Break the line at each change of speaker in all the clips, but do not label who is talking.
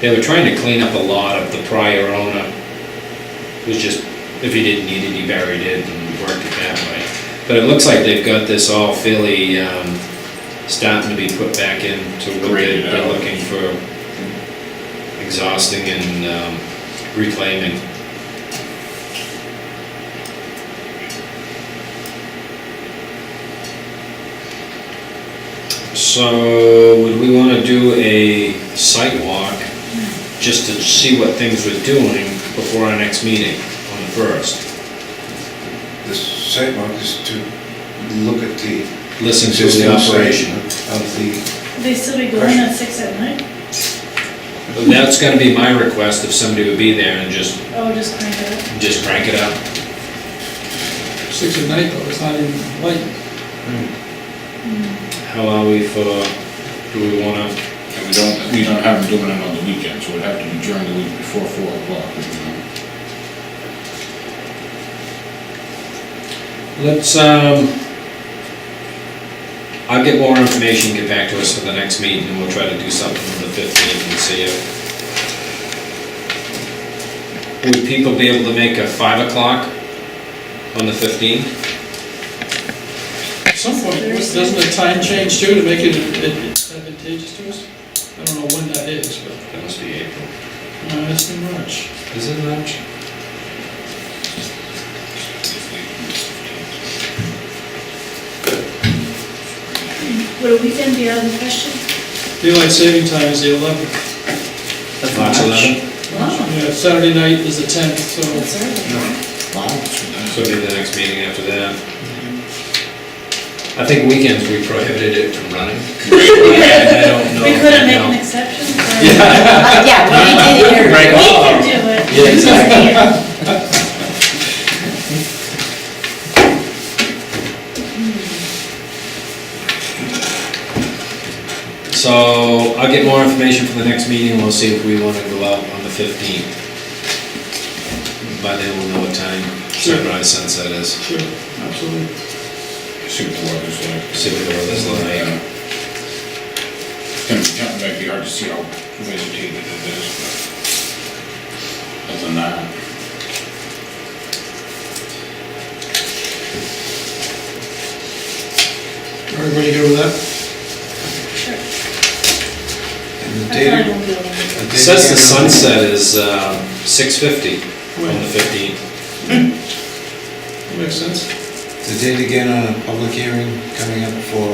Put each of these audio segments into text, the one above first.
They were trying to clean up a lot of the prior owner. It was just, if he didn't need it, he buried it and worked it that way. But it looks like they've got this all fairly, um, starting to be put back into what they're
Graded
they're
out.
looking for. Exhausting and um, reclaiming. So, would we wanna do a site walk, just to see what things we're doing before our next meeting on the first?
The sidewalk is to look at the
Listen to
existing
the operation.
Of the,
They still be going at six at night?
That's gonna be my request, if somebody would be there and just,
Oh, just crank it up.
just crank it up.
Six at night, though, it's not even light.
How are we for, do we wanna,
And we don't, we don't have them doing it on the weekend, so it'd have to be during the week before four o'clock, you know?
let's, um, I'll get more information, get back to us for the next meeting, and we'll try to do something on the fifteenth and see if. Would people be able to make a five o'clock on the fifteenth?
At some point, doesn't the time change too to make it advantageous to us? I don't know when that is, but
That must be April.
uh, that's too much.
Is it March?
Would a weekend be out of the question?
Daylight saving time is the eleventh.
March eleventh,
Wow.
Saturday night is the tenth, so
That's early.
so it'll be the next meeting after that. I think weekends we prohibited it from running. I don't know.
We couldn't make an
No.
exception for,
Uh, Yeah, we did hear.
we
Right.
can do it.
Yeah, exactly. So I'll get more information for the next meeting, we'll see if we wanna go out on the fifteenth. By then we'll know what time sunrise sunset is,
Sure, absolutely.
See what the weather's like.
see what the weather's like.
It's gonna be, kind of might be hard to see how vegetated it is, but other than that,
Everybody good with that?
Sure.
and the
I probably
date.
won't be able to.
the
It
date
Says the
again.
sunset is, um, six fifty on the fifteenth.
Makes sense.
The date again on a public hearing coming up for,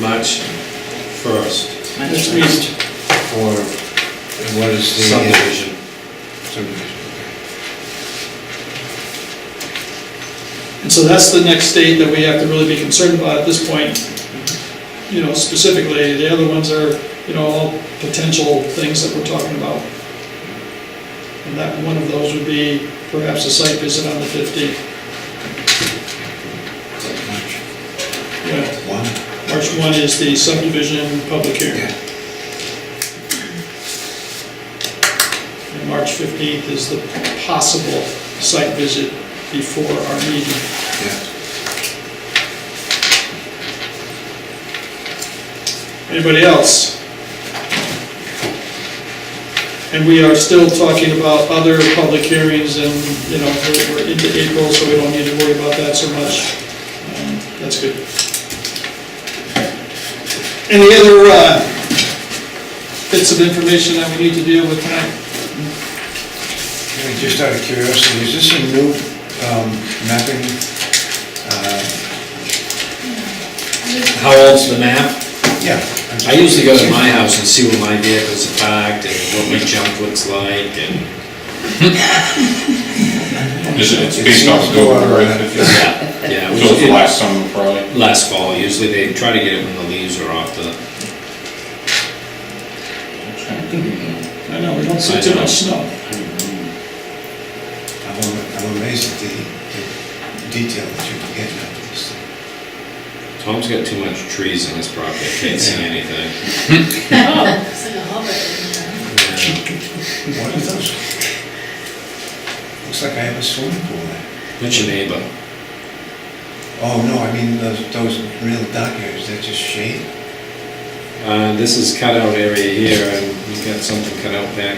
March first,
Next meeting,
for, what is the? uh,
subdivision.
subdivision,
and so that's the next date that we have to really be concerned about at this point. You know, specifically, the other ones are, you know, all potential things that we're talking about. And that, one of those would be perhaps a site visit on the fifteenth,
okay. March
yeah.
One?
March one is the subdivision public hearing,
Yeah.
and March fifteenth is the possible site visit before our meeting.
Yeah.
Anybody else? And we are still talking about other public hearings and, you know, we're- we're into April, so we don't need to worry about that so much. Um, That's good. Any other uh, bits of information that we need to deal with tonight?
Yeah, Just out of curiosity, is this a new um, mapping? Uh,
How old's the map?
Yeah.
I usually go to my house and see where my vehicles are parked and what my junk looks like and,
it's, it's based off the weather, right? If it's-
yeah.
So
we-
it's last summer probably.
Last fall, usually they try to get it when the leaves are off the,
I know, we don't see too much snow.
I'm am- I'm amazed at the the detail that you can get out of this thing.
Tom's got too much trees on his property, I can't see anything.
It's like a hobbit.
What are those? Looks like I have a swimming pool there.
What's your neighbor?
Oh, no, I mean, those, those real dark areas, they're just shade.
Uh, this is cutout area here, and we've got something cut out back